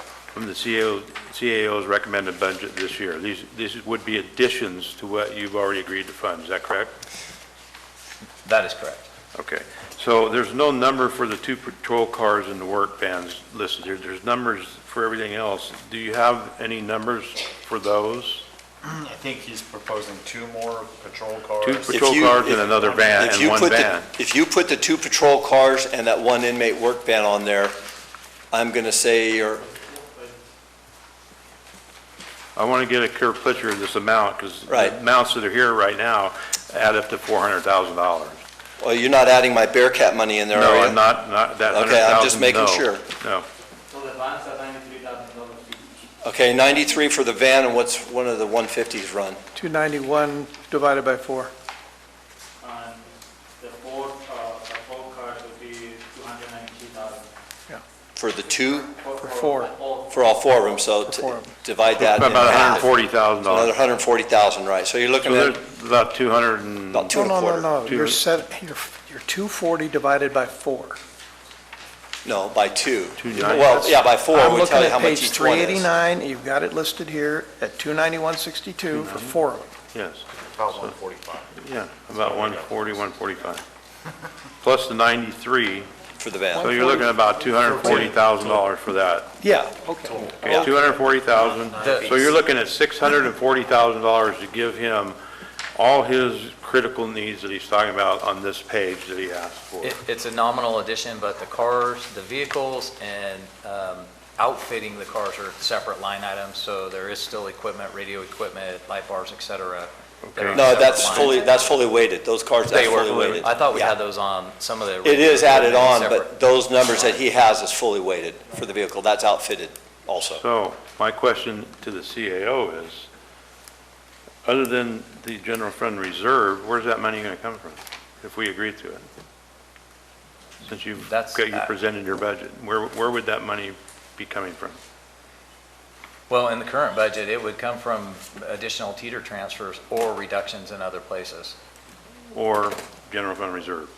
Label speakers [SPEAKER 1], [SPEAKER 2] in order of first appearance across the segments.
[SPEAKER 1] from the CAO CAO's recommended budget this year. These, these would be additions to what you've already agreed to fund, is that correct?
[SPEAKER 2] That is correct.
[SPEAKER 1] Okay, so there's no number for the two patrol cars and the work vans listed here, there's numbers for everything else. Do you have any numbers for those?
[SPEAKER 3] Mm, I think he's proposing two more patrol
[SPEAKER 1] Two
[SPEAKER 3] cars.
[SPEAKER 1] patrol
[SPEAKER 4] you-
[SPEAKER 1] cars and
[SPEAKER 4] if-
[SPEAKER 1] another van
[SPEAKER 4] If
[SPEAKER 1] and
[SPEAKER 4] you
[SPEAKER 1] one
[SPEAKER 4] put the-
[SPEAKER 1] van?
[SPEAKER 4] If you put the two patrol cars and that one inmate work van on there, I'm going to say you're
[SPEAKER 1] I want to get a clear picture of this amount, because
[SPEAKER 4] Right.
[SPEAKER 1] the amounts that are here right now add up to $400,000.
[SPEAKER 4] well, you're not adding my Bearcat money in there, are you?
[SPEAKER 1] No, I'm not, not, that 100,000,
[SPEAKER 4] Okay, I'm just making
[SPEAKER 1] no.
[SPEAKER 4] sure.
[SPEAKER 1] No,
[SPEAKER 5] So the bonds are ninety-three thousand dollars each.
[SPEAKER 4] Okay, 93 for the van, and what's one of the 150s run?
[SPEAKER 6] 291 divided by four.
[SPEAKER 5] And the four, uh, the four cars would be two hundred ninety-three thousand.
[SPEAKER 4] For the two,
[SPEAKER 6] For four.
[SPEAKER 4] for all four of them, so
[SPEAKER 6] For
[SPEAKER 4] t-
[SPEAKER 6] four of 'em.
[SPEAKER 4] divide that in
[SPEAKER 1] about
[SPEAKER 4] half. Another
[SPEAKER 1] $140,000.
[SPEAKER 4] 140,000, right, so you're
[SPEAKER 1] So
[SPEAKER 4] looking
[SPEAKER 1] there's
[SPEAKER 4] at
[SPEAKER 1] about 200 and,
[SPEAKER 4] about two and a
[SPEAKER 6] No,
[SPEAKER 4] quarter.
[SPEAKER 6] no, no, no,
[SPEAKER 1] Two.
[SPEAKER 6] you're set, you're, you're 240 divided by four.
[SPEAKER 4] No, by two.
[SPEAKER 1] Two ninety.
[SPEAKER 4] Well, yeah, by four,
[SPEAKER 6] I'm
[SPEAKER 4] we
[SPEAKER 6] looking
[SPEAKER 4] tell you how
[SPEAKER 6] at
[SPEAKER 4] much
[SPEAKER 6] page
[SPEAKER 4] each one is.
[SPEAKER 6] 389, you've got it listed here at 291.62 for
[SPEAKER 4] Mm-hmm.
[SPEAKER 6] four of them.
[SPEAKER 1] yes,
[SPEAKER 3] About one forty-five.
[SPEAKER 1] yeah, about 140, 145. Plus the 93,
[SPEAKER 4] For
[SPEAKER 1] so
[SPEAKER 4] the van,
[SPEAKER 1] you're looking at about $240,000 for that.
[SPEAKER 6] Yeah, okay.
[SPEAKER 1] Okay, 240,000, so you're looking at $640,000 to give him all his critical needs that he's talking about on this page that he asked for.
[SPEAKER 2] It, it's a nominal addition, but the cars, the vehicles, and um, outfitting the cars are separate line items, so there is still equipment, radio equipment, light bars, et cetera. that
[SPEAKER 1] Okay.
[SPEAKER 2] are on
[SPEAKER 4] no,
[SPEAKER 2] separate
[SPEAKER 4] that's
[SPEAKER 2] lines.
[SPEAKER 4] fully, that's fully weighted, those cars, that's
[SPEAKER 2] They
[SPEAKER 4] fully
[SPEAKER 2] were,
[SPEAKER 4] weighted.
[SPEAKER 2] I thought we
[SPEAKER 4] Yeah.
[SPEAKER 2] had those on some of the.
[SPEAKER 4] It is added on,
[SPEAKER 2] Separate.
[SPEAKER 4] but those numbers that he has is fully weighted for the vehicle. That's outfitted also.
[SPEAKER 1] So my question to the CAO is, other than the general fund reserve, where's that money going to come from if we agree to it? Since you've,
[SPEAKER 2] That's-
[SPEAKER 1] you presented your budget, where, where would that money be coming from?
[SPEAKER 2] Well, in the current budget, it would come from additional teeter transfers or reductions in other places.
[SPEAKER 1] Or general fund reserve?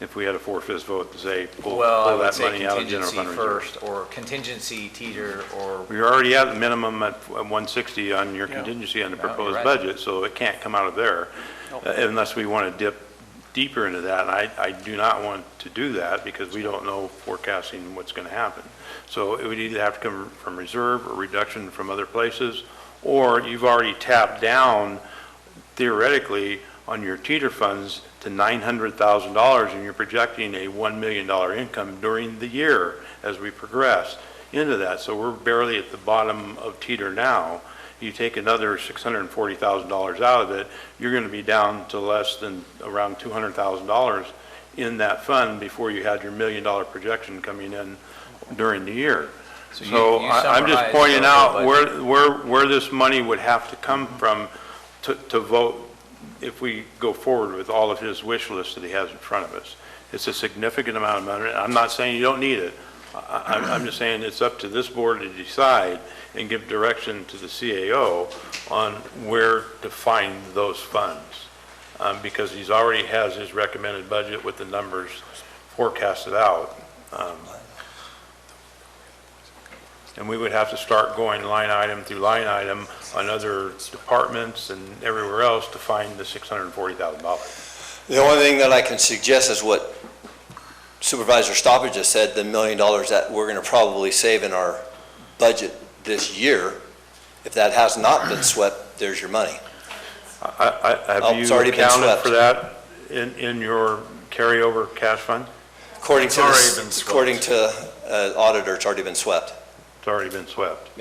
[SPEAKER 1] If we had a four-fifths vote to say, pull
[SPEAKER 2] Well, I
[SPEAKER 1] pull
[SPEAKER 2] would
[SPEAKER 1] that
[SPEAKER 2] say
[SPEAKER 1] money out of general
[SPEAKER 2] contingency
[SPEAKER 1] fund reserve.
[SPEAKER 2] first, or contingency teeter, or
[SPEAKER 1] You're already at the minimum at 160 on your
[SPEAKER 6] Yeah.
[SPEAKER 1] contingency on the
[SPEAKER 2] No, you're
[SPEAKER 1] proposed
[SPEAKER 2] right.
[SPEAKER 1] budget, so it can't come out of there
[SPEAKER 6] Nope.
[SPEAKER 1] uh, unless we want to dip deeper into that. And I, I do not want to do that because we don't know forecasting what's going to happen. So it would either have to come from reserve or reduction from other places, or you've already tapped down theoretically on your teeter funds to $900,000 and you're projecting a $1 million income during the year as we progress into that. So we're barely at the bottom of teeter now. You take another $640,000 out of it, you're going to be down to less than around $200,000 in that fund before you had your million-dollar projection coming in during the year.
[SPEAKER 2] So you-
[SPEAKER 1] So
[SPEAKER 2] you
[SPEAKER 1] I- I'm just
[SPEAKER 2] summarized
[SPEAKER 1] pointing
[SPEAKER 2] the
[SPEAKER 1] out
[SPEAKER 2] budget.
[SPEAKER 1] where, where, where this money would have to come from to, to vote if we go forward with all of his wish list that he has in front of us. It's a significant amount of money. I'm not saying you don't need it. I, I'm, I'm just saying it's up to this board to decide and give direction to the CAO on where to find those funds. Um, because he's already has his recommended budget with the numbers forecasted out. Um, And we would have to start going line item through line item on other departments and everywhere else to find the $640,000.
[SPEAKER 4] The only thing that I can suggest is what Supervisor Stoppage just said, the million dollars that we're going to probably save in our budget this year. If that has not been swept, there's your money.
[SPEAKER 1] I- I-
[SPEAKER 4] Oh,
[SPEAKER 1] Have you
[SPEAKER 4] it's already been
[SPEAKER 1] accounted
[SPEAKER 4] swept.
[SPEAKER 1] for that in, in your carryover cash fund?
[SPEAKER 4] According to,
[SPEAKER 3] It's
[SPEAKER 4] this-
[SPEAKER 3] already been swept.
[SPEAKER 4] according to uh, auditor, it's already been swept.
[SPEAKER 1] It's already been swept.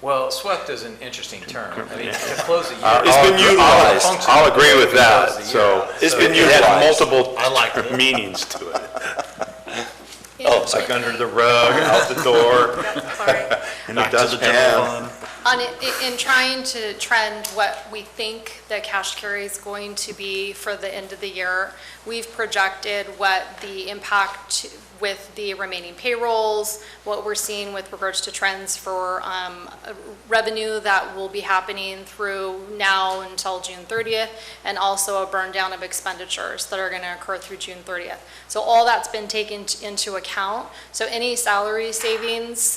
[SPEAKER 2] Well, swept is an interesting term. I mean, to close the year.
[SPEAKER 1] Uh,
[SPEAKER 4] It's been utilized.
[SPEAKER 1] I'll agree with that,
[SPEAKER 2] Close the year
[SPEAKER 1] so.
[SPEAKER 2] out.
[SPEAKER 4] It's been
[SPEAKER 1] It had
[SPEAKER 4] utilized.
[SPEAKER 1] multiple
[SPEAKER 3] I like it.
[SPEAKER 1] meanings to it.
[SPEAKER 4] Oh,
[SPEAKER 1] It's like under the rug, out the door,
[SPEAKER 7] Sorry.
[SPEAKER 1] and it doesn't have.
[SPEAKER 7] On, i- in trying to trend what we think the cash carry is going to be for the end of the year, we've projected what the impact with the remaining payrolls, what we're seeing with regards to trends for um, revenue that will be happening through now until June 30th, and also a burn down of expenditures that are going to occur through June 30th. So all that's been taken t- into account. So any salary savings